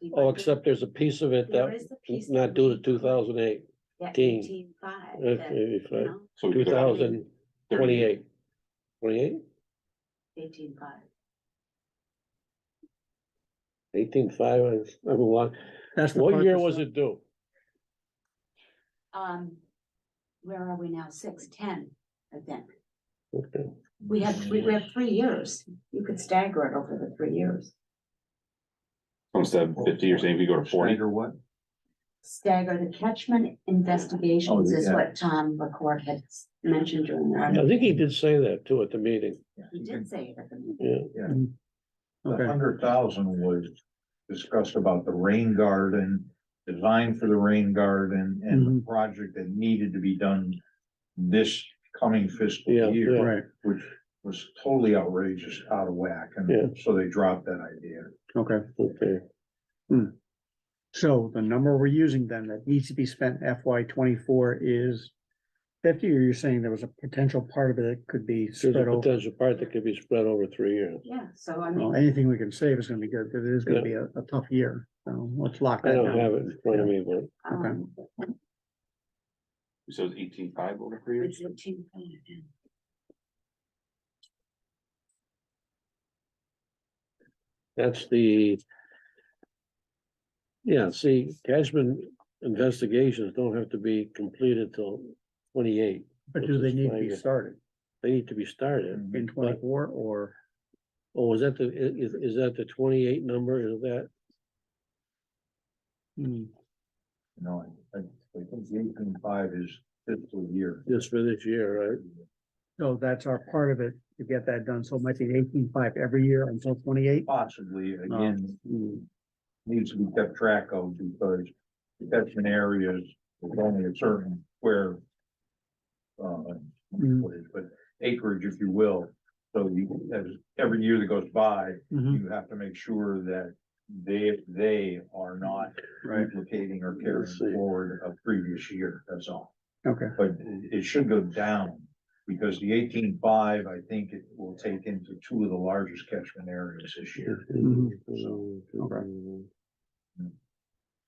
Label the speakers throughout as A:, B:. A: be.
B: Oh, except there's a piece of it
A: There
B: that
A: is the piece
B: was not
A: that-
B: due to two thousand eight, uh,
A: Yeah,
B: 18.
A: eighteen five.
C: So
B: two
C: you got
B: thousand twenty-eight. Twenty-eight,
A: Eighteen five.
B: eighteen five, I don't know,
D: That's the
B: what year
D: purpose
B: was
D: of-
B: it due?
A: Um, where are we now? Six, ten, I think.
B: Okay.
A: We had three, we had three years. You could stagger it over the three years.
C: Instead
D: Oh,
C: of fifty, you're saying we go to forty?
E: Or what?
A: Stagger the catchment investigations
D: Oh,
A: is what Tom McCord had s- mentioned during
B: I
A: that.
B: think he did say that too at the meeting,
A: He did say it at the meeting.
E: The
D: Okay,
E: hundred thousand was discussed about the rain garden, design for the rain garden and the project that needed to be done this coming fiscal
B: Yeah,
E: year,
D: right,
E: which was totally outrageous, out of whack. And so they dropped that idea.
D: okay.
B: okay,
D: So the number we're using then that needs to be spent FY twenty-four is fifty, or you're saying there was a potential part of it that could be
B: there's
D: spread
B: a
D: over?
B: potential part that could be spread over three years.
A: Yeah, so I
D: Well,
A: mean,
D: anything we can save is gonna be good, because it is
B: Yeah.
D: gonna be a, a tough year, so let's lock
B: I
D: that
B: don't
D: down.
B: have it in front of me, but.
D: Oh,
A: um,
C: So it's eighteen five over three years?
A: it's eighteen. five, yeah.
B: That's the. Yeah, see, Cashman investigations don't have to be completed till twenty-eight.
D: But do they need to be started
B: They need to be started.
D: in twenty-four or?
B: Oh, is that the, i- is, is that the twenty-eight number? Is that,
D: Hmm,
E: No, I, I think eighteen five is fiscal year.
B: just for this year, right?
D: So that's our part of it, to get that done, so it might be eighteen-five every year until twenty-eight?
E: Possibly, again,
B: Mm.
D: Hmm.
E: needs to be kept track of because catchment areas is only a certain where. Uh,
D: Mm.
E: what is, but acreage, if you will, so you, as every year that goes by,
D: Mhm,
E: you have to make sure that. They, they are not
D: Right,
E: duplicating or carrying
B: Let's see.
E: forward a previous year, that's all,
D: okay,
E: but it it should go down. Because the eighteen five, I think it will take into two of the largest catchment areas this year.
B: Mm-hmm. No,
D: all right.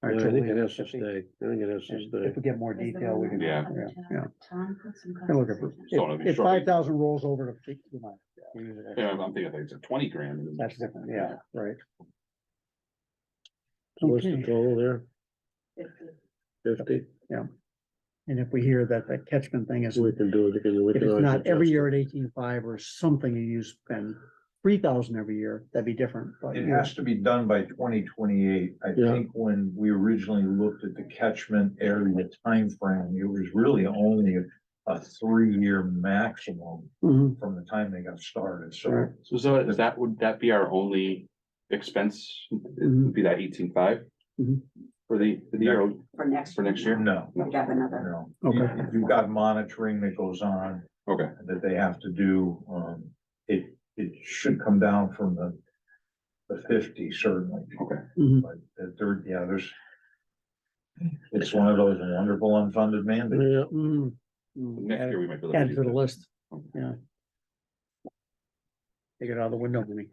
B: I
D: so
B: think
D: we-
B: it has to
D: if we-
B: stay. I think it has to
D: and If
B: stay.
D: we get more
A: Is there
D: detail, we can.
A: another
C: Yeah.
A: one?
D: yeah.
A: Tom put some.
D: I'm looking for-
A: conversation.
C: So it'll be
D: If
C: shortly.
D: five thousand rolls over to fifty, you might- we use it.
C: Yeah, I'm thinking like it's a twenty grand.
D: that's different, yeah, right.
B: So What's the
D: Okay.
B: total there? Fifty?
D: And if we hear that the catchment thing is,
B: We
D: if
B: can do it. again. We can
D: it's
B: always
D: not every
B: adjust
D: year at eighteen-five or something, you spend three thousand every year, that'd be different, but.
E: It has to be done by twenty twenty-eight. I
B: Yeah.
E: think when we originally looked at the catchment area timeframe, it was really only a- a three-year maximum
D: Mhm,
E: from the time they got started, so.
D: Right.
C: So, so is that, would that be our only expense? It
D: Mhm.
C: would be that eighteen five?
D: Mhm.
C: For the, for the year,
A: For next.
C: for next year?
E: No,
A: We have another.
E: no.
D: Okay.
E: You- You've got monitoring that goes on
C: okay,
E: that they have to do. Um, it, it should come down from the the fifty certainly,
C: okay.
D: mhm.
E: but the third, yeah, there's it's one of those wonderful unfunded mandates.
B: it. Yeah.
D: Mm, mm,
C: Next
D: add
C: year
D: it-
C: we might be able to.
D: Add it
C: do
D: to the
C: that.
D: list,
C: Okay.
D: yeah. Take it out of the window for me.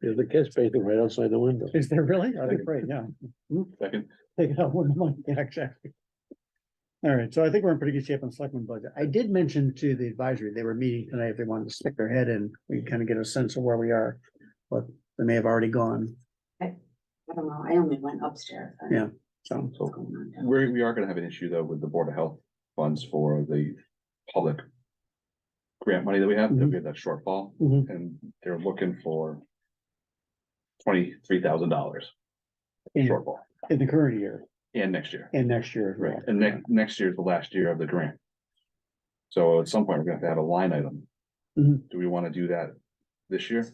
B: There's the catch basin right outside the window.
D: Is there really? I'd be afraid, yeah.
C: Second,
D: Take it out one month, yeah, exactly. All right, so I think we're in pretty good shape on selectmen budget. I did mention to the advisory, they were meeting tonight, if they wanted to stick their head in, we kind of get a sense of where we are. But they may have already gone,
A: I don't know, I only went upstairs. I don't
D: Yeah.
A: know
D: so,
A: what's going on down
C: we, we are gonna have an issue though with the Board of Health funds for the public. Grant money that we have, that we have that shortfall,
D: Mhm.
C: and they're looking for. Twenty-three thousand dollars
D: in,
C: shortfall,
D: in the current year
C: and next year.
D: and next year. as well.
C: Right, and next, next year is the last year of the grant. So at some point, we're gonna have to have a line item.
D: Mhm.
C: Do we wanna do that this year?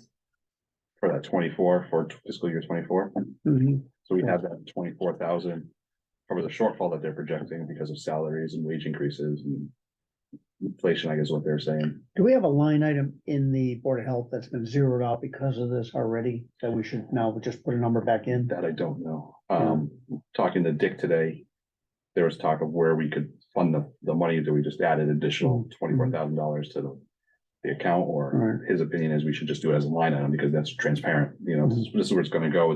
C: For that twenty-four, for fiscal year twenty-four,
D: Mhm,
C: so we have that twenty-four thousand. Cover the shortfall that they're projecting because of salaries and wage increases and. Inflation, I guess is what they're saying,
D: Do we have a line item in the Board of Health that's been zeroed out because of this already, that we should now just put a number back in?
C: that I don't know, um, talking to Dick today. There was talk of where we could fund the, the money that we just added additional twenty-four thousand dollars to the. the account or
D: Right.
C: his opinion is we should just do it as a line item because that's transparent, you know, this is- this is where it's gonna go.